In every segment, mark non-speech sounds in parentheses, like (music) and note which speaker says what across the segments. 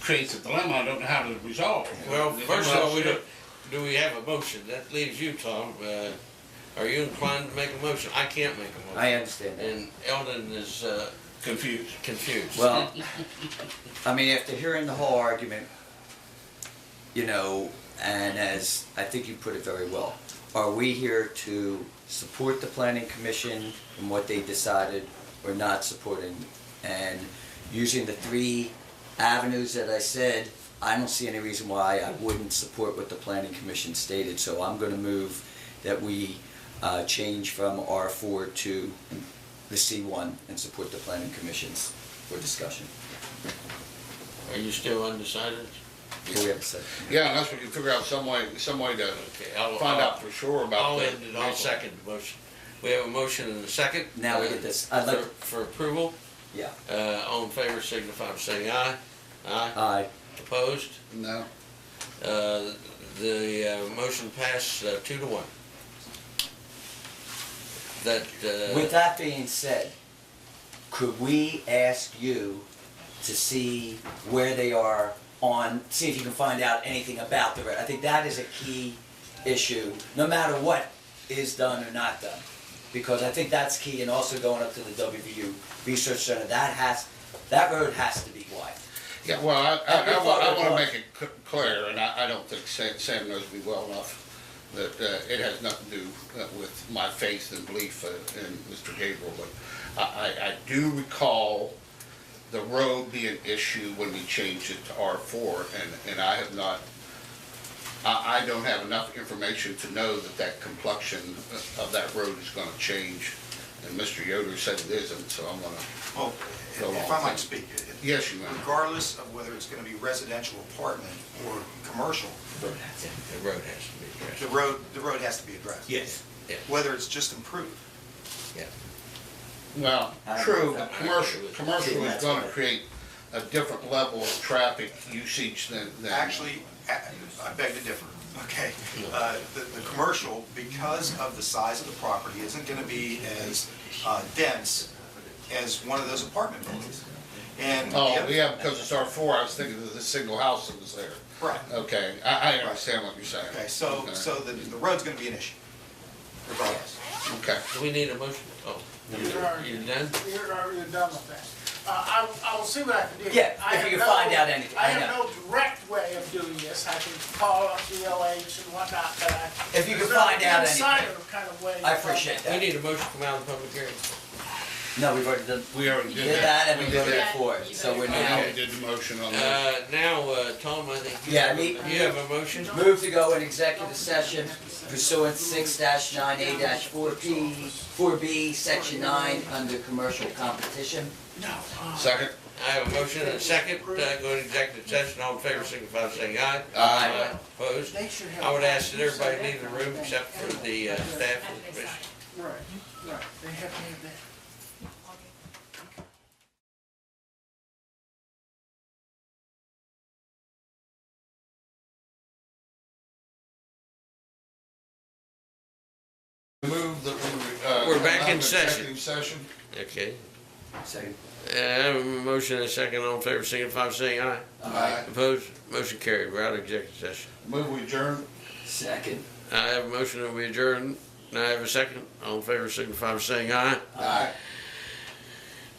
Speaker 1: creates a dilemma I don't know how to resolve.
Speaker 2: Well,
Speaker 1: There's
Speaker 2: first
Speaker 1: no
Speaker 2: of all, we
Speaker 1: upstairs.
Speaker 2: do, do we have a motion? That leaves you, Tom. Uh, are you inclined to make a motion? I can't make a motion.
Speaker 3: I
Speaker 2: (laughs)
Speaker 3: understand that.
Speaker 2: And Eldon is uh,
Speaker 1: Confused.
Speaker 2: confused.
Speaker 3: Well, I mean, after hearing the whole argument, you know, and as I think you put it very well, are we here to support the planning commission and what they decided or not supporting? And using the three avenues that I said, I don't see any reason why I wouldn't support what the planning commission stated. So I'm gonna move that we uh, change from R four to the C one and support the planning commissions for discussion.
Speaker 2: are you still undecided?
Speaker 3: Before we have a second.
Speaker 4: Yeah, unless we can figure out some way, some way to
Speaker 2: Okay, I'll,
Speaker 4: find
Speaker 2: I'll,
Speaker 4: out for sure about
Speaker 2: I'll
Speaker 4: that.
Speaker 2: end it. I'll second the motion. We have a motion and a second.
Speaker 3: Now we
Speaker 2: uh,
Speaker 3: get this. I'd like,
Speaker 2: for, for approval.
Speaker 3: Yeah.
Speaker 2: Uh, all in favor, signify by saying aye. Aye.
Speaker 3: aye,
Speaker 2: Opposed?
Speaker 4: No,
Speaker 2: Uh, the uh, motion passed uh, two to one. That, uh,
Speaker 3: with that being said, could we ask you to see where they are on, see if you can find out anything about the red? I think that is a key issue, no matter what is done or not done. Because I think that's key, and also going up to the WVU Research Center, that has, that road has to be wide.
Speaker 4: yeah, well, I,
Speaker 3: Have you
Speaker 4: I, I
Speaker 3: thought
Speaker 4: want, I
Speaker 3: of
Speaker 4: wanna
Speaker 3: what?
Speaker 4: make it c- clear, and I, I don't think Sam, Sam knows me well enough, that, uh, it has nothing to do uh, with my faith and belief uh, in Mr. Gabriel, but I, I, I do recall the road be an issue when we changed it to R four, and, and I have not, I, I don't have enough information to know that that complexion uh, of that road is gonna change. And Mr. Yoder said it isn't, so I'm gonna,
Speaker 5: Well,
Speaker 4: Go
Speaker 5: if
Speaker 4: on.
Speaker 5: I might speak, it-
Speaker 4: yes, you may.
Speaker 5: regardless of whether it's going to be residential apartment or commercial,
Speaker 2: The road has to be addressed.
Speaker 5: the road, the road has to be addressed.
Speaker 2: Yes. Yeah.
Speaker 5: Whether it's just improved.
Speaker 4: Well,
Speaker 3: I don't
Speaker 4: true,
Speaker 3: know.
Speaker 4: but commercial, commercial is
Speaker 3: That's
Speaker 4: gonna
Speaker 3: right.
Speaker 4: create a different level of traffic usage than, than.
Speaker 5: Actually, a- I beg to differ, (laughs) okay? Uh, The, the commercial, because of the size of the property, isn't going to be as uh, dense as one of those apartment buildings. And. the
Speaker 4: Oh,
Speaker 5: other-
Speaker 4: yeah, because it's R four, I was thinking of the single house that was there.
Speaker 5: Right.
Speaker 4: Okay, I, I understand what you're saying.
Speaker 5: Okay, so,
Speaker 4: Okay.
Speaker 5: so the, the road's going to be an issue regardless.
Speaker 4: Okay,
Speaker 2: Do we need a motion? Oh,
Speaker 6: You had already,
Speaker 2: you
Speaker 6: you
Speaker 2: done?
Speaker 6: had already done with that. Uh, I, I will see what I can do.
Speaker 3: Yeah,
Speaker 6: I
Speaker 3: if
Speaker 6: have
Speaker 3: you
Speaker 6: no-
Speaker 3: can find out anything,
Speaker 6: I
Speaker 3: I
Speaker 6: have
Speaker 3: know.
Speaker 6: no direct way of doing this. I can call up the LH and whatnot, but I.
Speaker 3: If you can
Speaker 6: there's no
Speaker 3: find out anything.
Speaker 6: Insider kind of way. to
Speaker 3: I
Speaker 6: find
Speaker 3: appreciate
Speaker 6: out.
Speaker 2: We
Speaker 3: that.
Speaker 2: need a motion to come out of the public hearing.
Speaker 3: No, we've already done,
Speaker 4: we already
Speaker 3: we
Speaker 4: did
Speaker 3: did that and
Speaker 4: that. We
Speaker 3: we
Speaker 4: did
Speaker 3: voted
Speaker 4: that.
Speaker 3: for it, so we're now.
Speaker 4: We did the motion on that.
Speaker 2: Uh, now, uh, Tom, I think you
Speaker 3: Yeah,
Speaker 2: have, a-
Speaker 3: me-
Speaker 2: you have a motion?
Speaker 3: Move to go in executive session pursuant six nine A four P, four B, section nine, under commercial competition.
Speaker 4: Second,
Speaker 2: I have a motion and a second, uh, go to executive session, all in favor, signify by saying aye.
Speaker 4: Aye.
Speaker 2: Opposed?
Speaker 6: They should have.
Speaker 2: I would ask that everybody leave the room except for the uh, staff and the commission.
Speaker 6: Right, right. They have to have that.
Speaker 4: move that we, uh.
Speaker 2: We're back in
Speaker 4: allow the
Speaker 2: session.
Speaker 4: executive Session.
Speaker 2: Okay.
Speaker 3: Second.
Speaker 2: Uh, I have a motion and a second, all in favor, signify by saying aye.
Speaker 4: Aye.
Speaker 2: Opposed? Motion carried, we're out of executive session.
Speaker 4: Move we adjourn.
Speaker 3: Second.
Speaker 2: I have a motion that we adjourn, and I have a second, all in favor, signify by saying aye.
Speaker 4: Aye.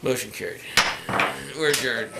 Speaker 2: Motion carried. We're adjourned.